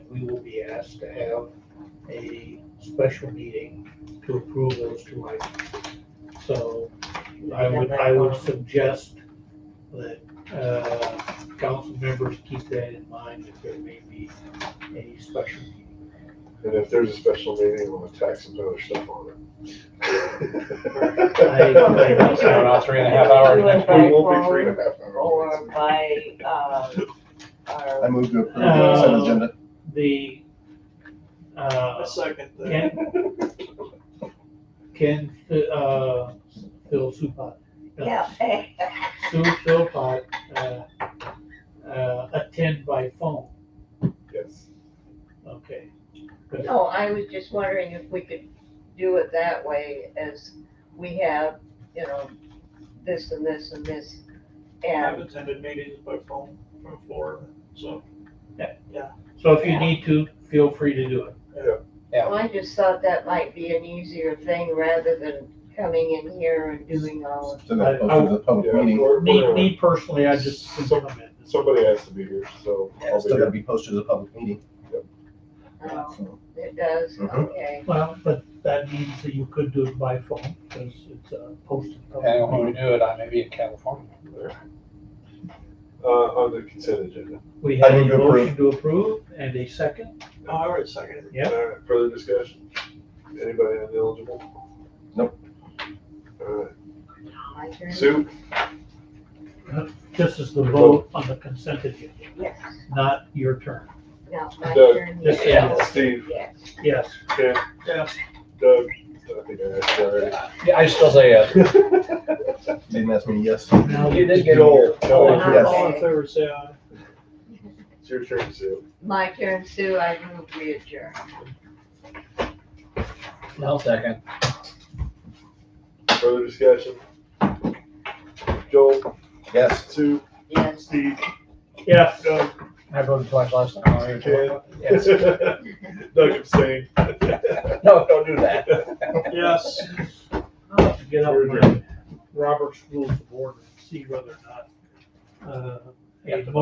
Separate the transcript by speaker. Speaker 1: be asked to have a special meeting to approve those two items. So I would, I would
Speaker 2: um,
Speaker 1: suggest that, uh, council members keep that in mind, that there may be a special meeting.
Speaker 3: And if there's a special meeting, we'll attack some other stuff on it.
Speaker 1: I-
Speaker 2: So about three and a half hours next
Speaker 3: We
Speaker 2: week.
Speaker 3: won't be three and a half
Speaker 2: Or
Speaker 3: hours.
Speaker 2: by, um,
Speaker 4: I
Speaker 2: our,
Speaker 4: move to approve the
Speaker 1: Uh,
Speaker 4: consent agenda.
Speaker 1: The, uh,
Speaker 5: second
Speaker 1: can, can, uh, Phil Supot.
Speaker 2: yeah, hey,
Speaker 1: Sue Philpott, uh, uh, attend by phone,
Speaker 3: Yes.
Speaker 1: okay.
Speaker 2: no, I was just wondering if we could do it that way as we have, you know, this and this and this.
Speaker 5: I've
Speaker 2: And,
Speaker 5: attended meetings by phone from Florida, so.
Speaker 1: So if you need to, feel free to do it.
Speaker 2: well, I just thought that might be an easier thing rather than coming in here and doing all of.
Speaker 4: To the, to the public
Speaker 3: Yeah,
Speaker 4: meeting.
Speaker 3: we're-
Speaker 1: Me,
Speaker 3: we're-
Speaker 1: me personally, I just compliment.
Speaker 3: Somebody has to be here, so I'll
Speaker 4: It's
Speaker 3: be
Speaker 4: still gotta
Speaker 3: here.
Speaker 4: be posted as a public meeting.
Speaker 2: Oh,
Speaker 4: so.
Speaker 2: It does,
Speaker 1: Mm-hmm.
Speaker 4: Mhm.
Speaker 2: okay.
Speaker 1: Well, but that means that you could do it by phone, because it's uh, posted.
Speaker 6: Depending on when we do it, I may be in California.
Speaker 3: Uh, on the consent agenda.
Speaker 1: We have
Speaker 4: I
Speaker 1: a
Speaker 4: move to
Speaker 1: motion to approve and a second,
Speaker 5: Oh, I already seconded it.
Speaker 1: Yep.
Speaker 3: All right, Uh, Further discussion? Anybody ineligible?
Speaker 4: Nope.
Speaker 3: All right,
Speaker 2: My turn?
Speaker 3: Sue?
Speaker 1: This is the vote on the consent agenda,
Speaker 2: Yes,
Speaker 1: not your turn.
Speaker 2: no, my
Speaker 3: Doug.
Speaker 2: turn.
Speaker 1: Yes,
Speaker 2: yes.
Speaker 1: yeah.
Speaker 3: Steve?
Speaker 2: Yes.
Speaker 1: Yes,
Speaker 3: Ken?
Speaker 5: Yeah.
Speaker 3: Doug? I think I asked you already.
Speaker 6: Yeah, I still say yes.
Speaker 4: Didn't ask me, yes.
Speaker 1: Now you
Speaker 6: did
Speaker 4: get
Speaker 3: Joel.
Speaker 2: Oh,
Speaker 3: Joel,
Speaker 4: yes.
Speaker 5: All in favor, say aye.
Speaker 3: It's your turn, Sue.
Speaker 2: My turn, Sue, I move we adjourn.
Speaker 6: I'll second.
Speaker 3: Further discussion? Joel?
Speaker 4: Yes.
Speaker 3: Sue?
Speaker 2: Yes.
Speaker 3: Steve?
Speaker 1: yes.
Speaker 3: Doug?
Speaker 6: I voted twice last time. I'll even-
Speaker 3: Ken?
Speaker 6: Yes.
Speaker 3: Doug abstained.
Speaker 6: No, don't do that.
Speaker 5: Yes.
Speaker 1: I'll have to get out
Speaker 3: Sure,
Speaker 1: my Robert's rules of order and see whether or not, uh,
Speaker 6: You have
Speaker 1: a
Speaker 6: to
Speaker 1: mo-